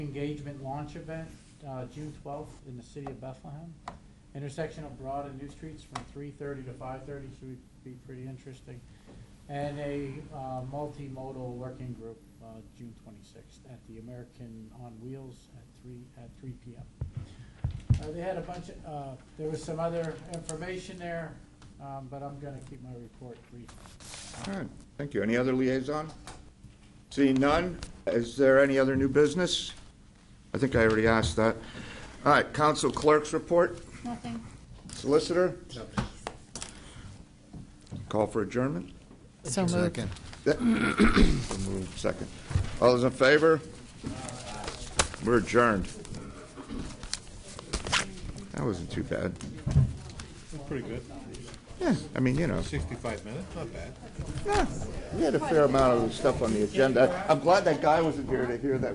Engagement launch event, uh, June twelfth in the city of Bethlehem. Intersection of Broad and New Streets from three thirty to five thirty should be pretty interesting. And a, uh, multimodal working group, uh, June twenty-sixth at the American on Wheels at three, at three P M. Uh, they had a bunch of, uh, there was some other information there, um, but I'm gonna keep my report brief. All right, thank you. Any other liaison? Seeing none, is there any other new business? I think I already asked that. All right, council clerk's report, Nothing. solicitor? Call for adjournment? So moved. Move Second. All those in favor? We're adjourned. That wasn't too bad. Pretty good. Yeah, I mean, you know. 65 minutes, not bad. Yeah, we had a fair amount of stuff on the agenda. I'm glad that guy wasn't here to hear that.